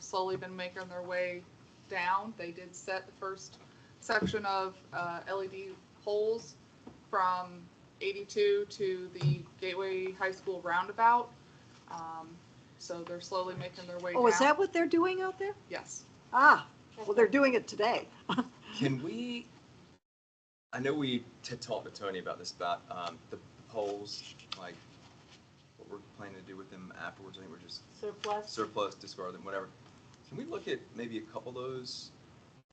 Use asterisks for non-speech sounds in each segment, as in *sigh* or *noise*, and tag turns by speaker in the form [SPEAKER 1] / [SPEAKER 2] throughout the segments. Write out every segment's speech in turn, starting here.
[SPEAKER 1] slowly been making their way down. They did set the first section of uh, LED poles from 82 to the Gateway High School roundabout. Um, So they're slowly making their way down.
[SPEAKER 2] Oh, is that what they're doing out there?
[SPEAKER 1] Yes.
[SPEAKER 2] Ah, well, they're doing it today.
[SPEAKER 3] Can we, I know we t- talked with Tony about this, about um, the polls, like what we're planning to do with them afterwards. I think we're just
[SPEAKER 4] surplus.
[SPEAKER 3] surplus, discard them, whatever. Can we look at maybe a couple of those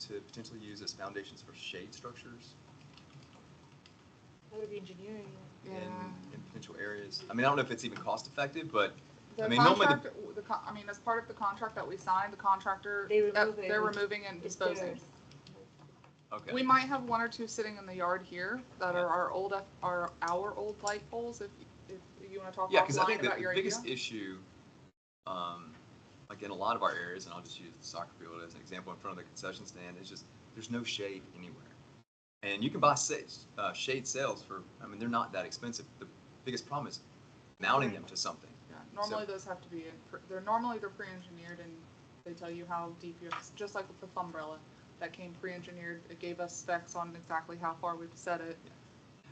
[SPEAKER 3] to potentially use as foundations for shade structures
[SPEAKER 4] That would be engineering.
[SPEAKER 3] in,
[SPEAKER 1] Yeah.
[SPEAKER 3] in potential areas? I mean, I don't know if it's even cost effective, but I
[SPEAKER 1] The
[SPEAKER 3] mean, normally the-
[SPEAKER 1] contract, the con- I mean, as part of the contract that we signed, the contractor,
[SPEAKER 4] They
[SPEAKER 1] uh,
[SPEAKER 4] remove it.
[SPEAKER 1] they're removing and
[SPEAKER 4] It's
[SPEAKER 1] disposing.
[SPEAKER 4] theirs.
[SPEAKER 3] okay.
[SPEAKER 1] We might have one or two sitting in the yard here that are our old, are our old light poles, if, if you want to talk
[SPEAKER 3] Yeah, because I
[SPEAKER 1] offline
[SPEAKER 3] think the
[SPEAKER 1] about your
[SPEAKER 3] the
[SPEAKER 1] idea.
[SPEAKER 3] biggest issue, um, like in a lot of our areas, and I'll just use the soccer field as an example in front of the concession stand, is just there's no shade anywhere. And you can buy sa- uh, shade sails for, I mean, they're not that expensive. The biggest problem is mounting them to something.
[SPEAKER 1] Yeah, Normally those have to be, in pre- they're, normally they're pre-engineered and they tell you how deep you have, to- just like with the umbrella. That came pre-engineered, it gave us specs on exactly how far we've set it.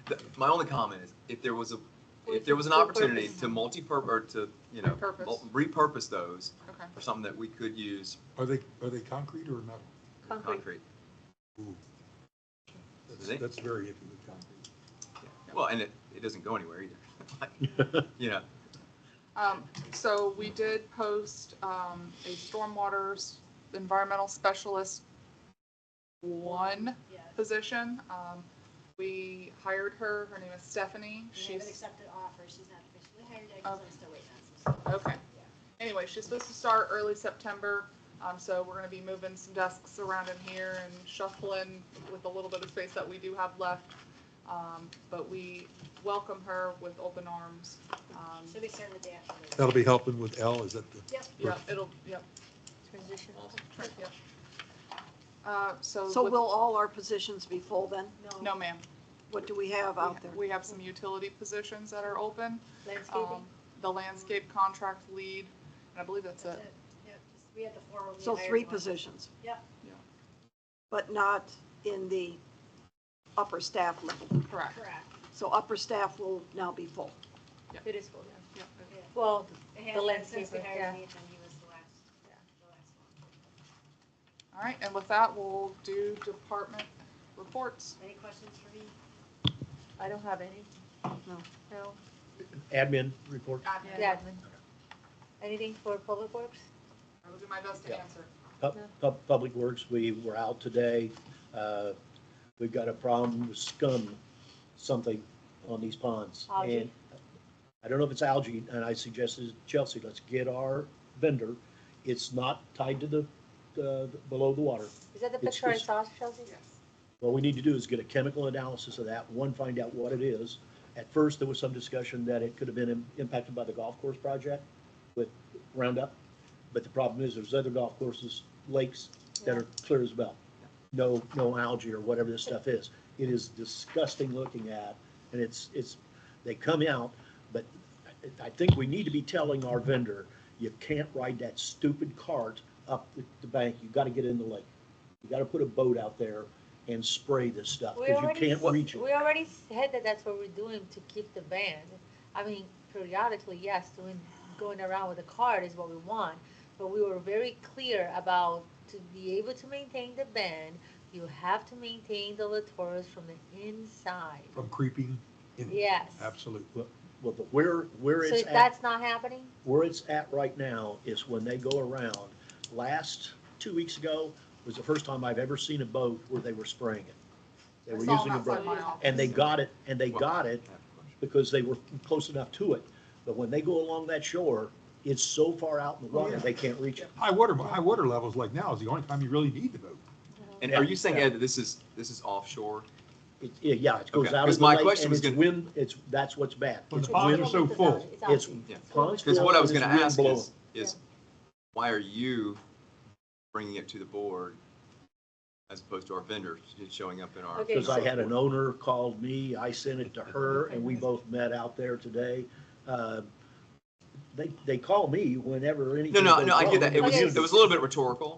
[SPEAKER 3] The- My only comment is if there was a,
[SPEAKER 4] Or
[SPEAKER 3] if there was an
[SPEAKER 4] repurpose
[SPEAKER 3] opportunity to
[SPEAKER 4] them.
[SPEAKER 3] multi-purpose, or to, you know,
[SPEAKER 1] Repurpose.
[SPEAKER 3] mul- repurpose those
[SPEAKER 1] Okay.
[SPEAKER 3] for something that we could use
[SPEAKER 5] Are they, are they concrete or metal?
[SPEAKER 4] Concrete.
[SPEAKER 3] concrete.
[SPEAKER 5] Ooh. That's,
[SPEAKER 3] They-
[SPEAKER 5] that's very iffy with concrete.
[SPEAKER 3] Well, and it, it doesn't go anywhere either. *laughs* Like, You know,
[SPEAKER 1] Um, so we did post, um, a stormwater s- environmental specialist one
[SPEAKER 6] Yeah,
[SPEAKER 1] position. Um, we hired her, her name is Stephanie.
[SPEAKER 6] we haven't
[SPEAKER 1] She's,
[SPEAKER 6] accepted offer, she's not officially hired yet, 'cause
[SPEAKER 1] Okay.
[SPEAKER 6] I'm still waiting on some stuff.
[SPEAKER 1] okay. Anyway, she's supposed to start early September, um, so we're gonna be moving some desks around in here and shuffling with a little bit of space that we do have left. Um, but we welcome her with open arms. Um,
[SPEAKER 6] She'll be starting the day after. this.
[SPEAKER 5] That'll be helping with L, is that the?
[SPEAKER 6] Yep.
[SPEAKER 1] yeah, it'll, yep,
[SPEAKER 4] Transition.
[SPEAKER 1] yep. Uh, so.
[SPEAKER 2] So
[SPEAKER 1] with-
[SPEAKER 2] will all our positions be full then?
[SPEAKER 1] No, ma'am.
[SPEAKER 2] What do we have out there?
[SPEAKER 1] We have some utility positions that are open.
[SPEAKER 4] Landscaping.
[SPEAKER 1] Um, the landscape contract lead, and I believe that's
[SPEAKER 6] That's
[SPEAKER 1] it.
[SPEAKER 6] it. Yep, just- We had the four when we
[SPEAKER 2] So
[SPEAKER 6] hired
[SPEAKER 2] three
[SPEAKER 6] one.
[SPEAKER 2] positions,
[SPEAKER 6] Yep,
[SPEAKER 2] but not in the upper staff level.
[SPEAKER 1] Correct.
[SPEAKER 6] correct.
[SPEAKER 2] So upper staff will now be full.
[SPEAKER 4] It is full, yeah.
[SPEAKER 1] Yep.
[SPEAKER 4] Well,
[SPEAKER 6] It has been since we
[SPEAKER 4] landscaper, yeah.
[SPEAKER 6] hired Nathan, he was the last, the last one.
[SPEAKER 1] All right, and with that, we'll do department reports.
[SPEAKER 6] Any questions for me?
[SPEAKER 4] I don't have any.
[SPEAKER 2] No.
[SPEAKER 4] No.
[SPEAKER 7] Admin report.
[SPEAKER 1] Admin.
[SPEAKER 4] Yeah. Anything for public works?
[SPEAKER 1] I will do my best to
[SPEAKER 7] Yeah.
[SPEAKER 1] answer.
[SPEAKER 7] Pub-
[SPEAKER 4] No.
[SPEAKER 7] pub- Public Works, we were out today. Uh, We've got a problem with scum, something on these ponds.
[SPEAKER 4] Algae.
[SPEAKER 7] And I don't know if it's algae, and I suggested, Chelsea, let's get our vendor. It's not tied to the, uh, below the water.
[SPEAKER 4] Is that the
[SPEAKER 7] It's
[SPEAKER 4] picture I
[SPEAKER 7] just-
[SPEAKER 4] saw, Chelsea?
[SPEAKER 1] Yes.
[SPEAKER 7] What we need to do is get a chemical analysis of that, one, find out what it is. At first, there was some discussion that it could have been im- impacted by the golf course project with Roundup. But the problem is, there's other golf courses, lakes that are clear as a bell. No, no algae or whatever this stuff is. It is disgusting looking at, and it's, it's, they come out, but I- I think we need to be telling our vendor, you can't ride that stupid cart up the- the bank, you gotta get in the lake. You gotta put a boat out there and spray this stuff,
[SPEAKER 4] We
[SPEAKER 7] because you
[SPEAKER 4] already
[SPEAKER 7] can't
[SPEAKER 4] s-
[SPEAKER 7] reach
[SPEAKER 4] We
[SPEAKER 7] it.
[SPEAKER 4] already said that that's what we're doing to keep the ban. I mean, periodically, yes, doing, going around with a card is what we want, but we were very clear about to be able to maintain the ban, you have to maintain the latoras from the inside.
[SPEAKER 5] From creeping in?
[SPEAKER 4] Yes.
[SPEAKER 5] Absolutely.
[SPEAKER 7] Well, the, where, where
[SPEAKER 4] So
[SPEAKER 7] it's
[SPEAKER 4] if
[SPEAKER 7] at,
[SPEAKER 4] that's not happening,
[SPEAKER 7] where it's at right now is when they go around. Last, two weeks ago, was the first time I've ever seen a boat where they were spraying it. They
[SPEAKER 1] I saw
[SPEAKER 7] were
[SPEAKER 1] them
[SPEAKER 7] using a
[SPEAKER 1] outside
[SPEAKER 7] boat,
[SPEAKER 1] my office.
[SPEAKER 7] and they got it, and they got it
[SPEAKER 3] I have a question.
[SPEAKER 7] because they were close enough to it. But when they go along that shore, it's so far out in the
[SPEAKER 5] Oh,
[SPEAKER 7] water,
[SPEAKER 5] yeah.
[SPEAKER 7] they can't reach it.
[SPEAKER 5] High water, high water levels like now is the only time you really need the boat.
[SPEAKER 3] And are you saying,
[SPEAKER 7] Yeah.
[SPEAKER 3] Ed, that this is, this is offshore?
[SPEAKER 7] It- Yeah, yeah, it goes
[SPEAKER 3] Okay,
[SPEAKER 7] out
[SPEAKER 3] 'cause
[SPEAKER 7] of the
[SPEAKER 3] my
[SPEAKER 7] lake,
[SPEAKER 3] question
[SPEAKER 7] and
[SPEAKER 3] was
[SPEAKER 7] it's
[SPEAKER 3] gonna-
[SPEAKER 7] wind, it's, that's what's bad.
[SPEAKER 5] When
[SPEAKER 7] It's
[SPEAKER 5] the ponds
[SPEAKER 7] wind-
[SPEAKER 5] are so full.
[SPEAKER 7] It's-
[SPEAKER 3] Yeah.
[SPEAKER 7] ponds
[SPEAKER 3] Because
[SPEAKER 7] full
[SPEAKER 3] what I
[SPEAKER 7] and
[SPEAKER 3] was
[SPEAKER 7] it's
[SPEAKER 3] gonna
[SPEAKER 7] wind
[SPEAKER 3] ask
[SPEAKER 7] blowing.
[SPEAKER 3] is, is why are you bringing it to the board as opposed to our vendors showing up in our?
[SPEAKER 4] Okay.
[SPEAKER 7] Because I had an owner called me, I sent it to her, and we both met out there today. Uh, they, they call me whenever anything.
[SPEAKER 3] No, no,
[SPEAKER 7] goes
[SPEAKER 3] no, I
[SPEAKER 7] wrong
[SPEAKER 3] get that. It
[SPEAKER 7] in the
[SPEAKER 3] was,
[SPEAKER 4] Okay.
[SPEAKER 3] it
[SPEAKER 7] community.
[SPEAKER 3] was a little bit rhetorical.